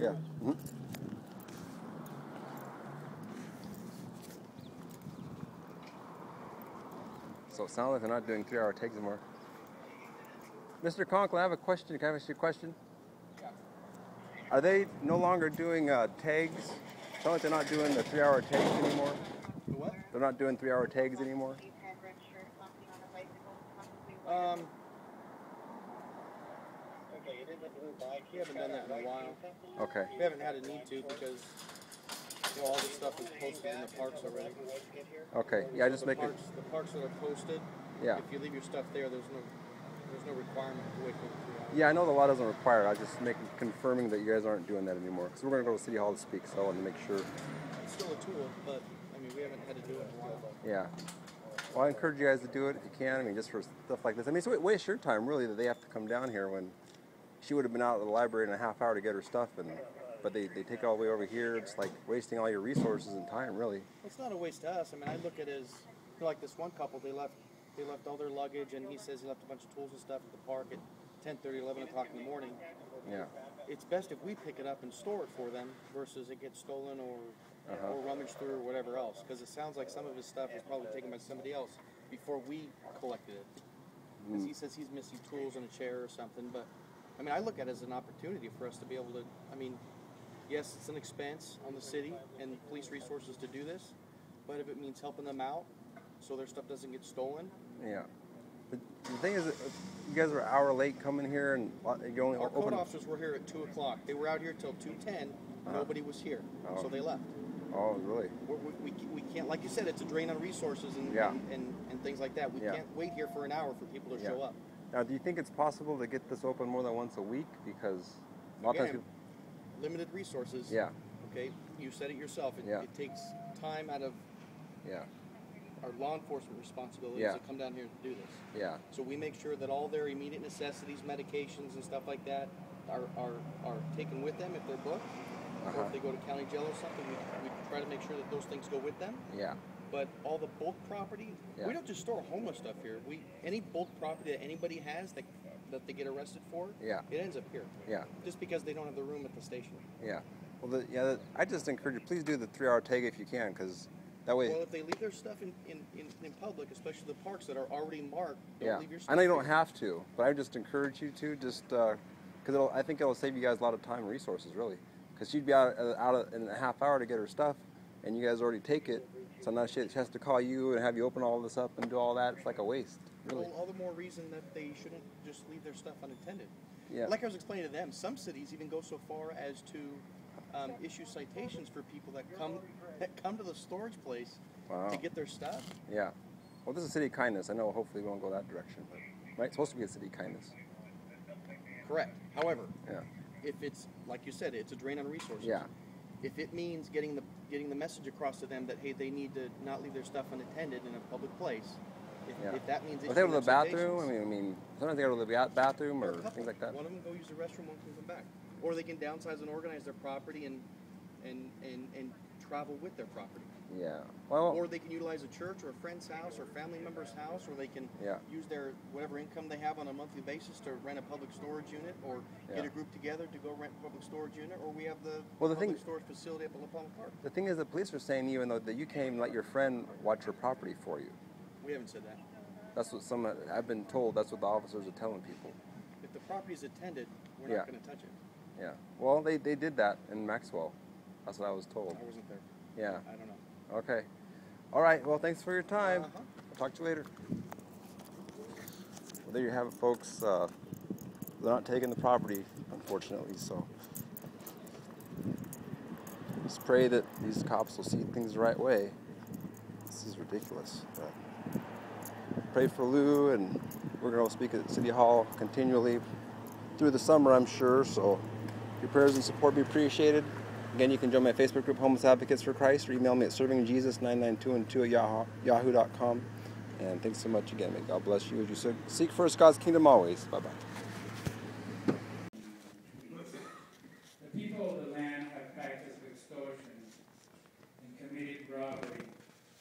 Yeah. Mhm. So it sounds like they're not doing three-hour takes anymore. Mr. Conkle, I have a question. Can I ask you a question? Are they no longer doing uh, tags? Sounds like they're not doing the three-hour tags anymore. what? They're not doing three-hour tags anymore. Um. We haven't done that in a while. Okay. We haven't had a need to because, you know, all this stuff is posted in the parks already. Okay. Yeah, I just The make it. parks- The parks that are posted. Yeah. If you leave your stuff there, there's no, there's no requirement to wait for three hours. Yeah, I know the law doesn't require it. I was just making confirming that you guys aren't doing that anymore. Because we're gonna go to City Hall to speak, so I wanted to make sure. It's still a tool, but, I mean, we haven't had to do it in a while. Yeah. Well, I encourage you guys to do it if you can. I mean, just for stuff like this. I mean, it's a wa- waste of your time, really, that they have to come down here when she would have been out at the library in a half hour to get her stuff, and but they, they take it all the way over here. It's like wasting all your resources and time, really. It's not a waste to us. I mean, I look at it as you know, like this one couple. They left, they left all their luggage, and he says he left a bunch of tools and stuff at the park at 10:30, 11 o'clock in the morning. Yeah. It's best if we pick it up and store it for them versus it gets stolen or or rummaged through or whatever else. Because it sounds like some of his stuff was probably taken by somebody else before we collected it. Because he says he's missing tools and a chair or something. But I mean, I look at it as an opportunity for us to be able to. I mean, yes, it's an expense on the city and police resources to do this, but if it means helping them out so their stuff doesn't get stolen, Yeah. The, the thing is, that if you guys were an hour late coming here, and lot- you only our code open. officers were here at two o'clock. They were out here till two ten. Nobody was here, Oh. so they left. Oh, really? We're, we, we, we can't, like you said, it's a drain on resources and Yeah. and, and, and things like that. We Yeah. can't wait here for an hour for people to show up. Now, do you think it's possible to get this open more than once a week? Because a lot of times Again, limited resources. people. Yeah. Okay. You said it yourself. It, Yeah. it takes time out of Yeah. our law enforcement responsibilities Yeah. to come down here and do this. Yeah. So we make sure that all their immediate necessities, medications, and stuff like that are, are, are taken with them if they're booked. Or Uh-huh. if they go to county jail or something, we, we try to make sure that those things go with them. Yeah. But all the bulk property, Yeah. we don't just store homeless stuff here. We any bulk property that anybody has that that they get arrested for, Yeah. it ends up here. Yeah. Just because they don't have the room at the station. Yeah. Well, the, yeah. The, I just encourage you. Please do the three-hour tag if you can, because that way. Well, if they leave their stuff in, in, in, in public, especially the parks that are already marked, don't yeah. leave your stuff I know you here. don't have to, but I just encourage you to just because it'll. I think it'll save you guys a lot of time and resources, really. Because she'd be out uh, out of, in a half hour to get her stuff, and you guys already take it. So now she she has to call you and have you open all this up and do all that. It's like a waste, really. Well, all the more reason that they shouldn't just leave their stuff unattended. Yeah. Like I was explaining to them, some cities even go so far as to um, issue citations for people that come that come to the storage place Wow. to get their stuff. Yeah. Well, this is city kindness. I know. Hopefully, we won't go that direction, but right. It's supposed to be a city kindness. Correct. However, Yeah. if it's like you said, it's a drain on resources. Yeah. If it means getting the getting the message across to them that hey, they need to not leave their stuff unattended in a public place, if, Yeah. if that means If they go to the issuing them bathroom, I citations- mean, I mean, sometimes they go to the ba- bathroom They're or a couple. things like that. One of them go use the restroom, one can come back, or they can downsize and organize their property and and and and travel with their property, Yeah. Well, or they can utilize a church or a friend's house or family member's house, or they can Yeah. use their whatever income they have on a monthly basis to rent a public storage unit, or get Yeah. a group together to go rent a public storage unit, or we have the Well, the thing- public storage facility at La Palma Park. the thing is, the police are saying even though that you can't even let your friend watch your property for you. We haven't said that. That's what some I've been told. That's what the officers are telling people. If the property is attended, we're Yeah. not going to touch it. Yeah. Well, they they did that in Maxwell. That's what I was told. I wasn't there. Yeah. I don't know. Okay. All right. Well, thanks for your time. Uh-huh. I'll talk to you later. Well, there you have it, folks. Uh, they're not taking the property, unfortunately. So just pray that these cops will see things the right way. This is ridiculous. But pray for Lou, and we're going to speak at City Hall continually through the summer, I'm sure. So your prayers and support be appreciated. Again, you can join my Facebook group, Homeless Advocates for Christ, or email me at servingjesus992 and 2 at yahoo- yahoo.com. And thanks so much again. May God bless you as you se- seek first God's kingdom always. Bye bye. The people of the land have practiced extortion and committed robbery.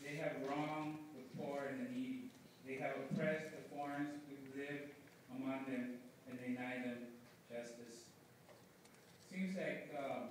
They have wronged the poor and the needy. They have oppressed the foreigners who live among them and denied them justice. See, seems like, um,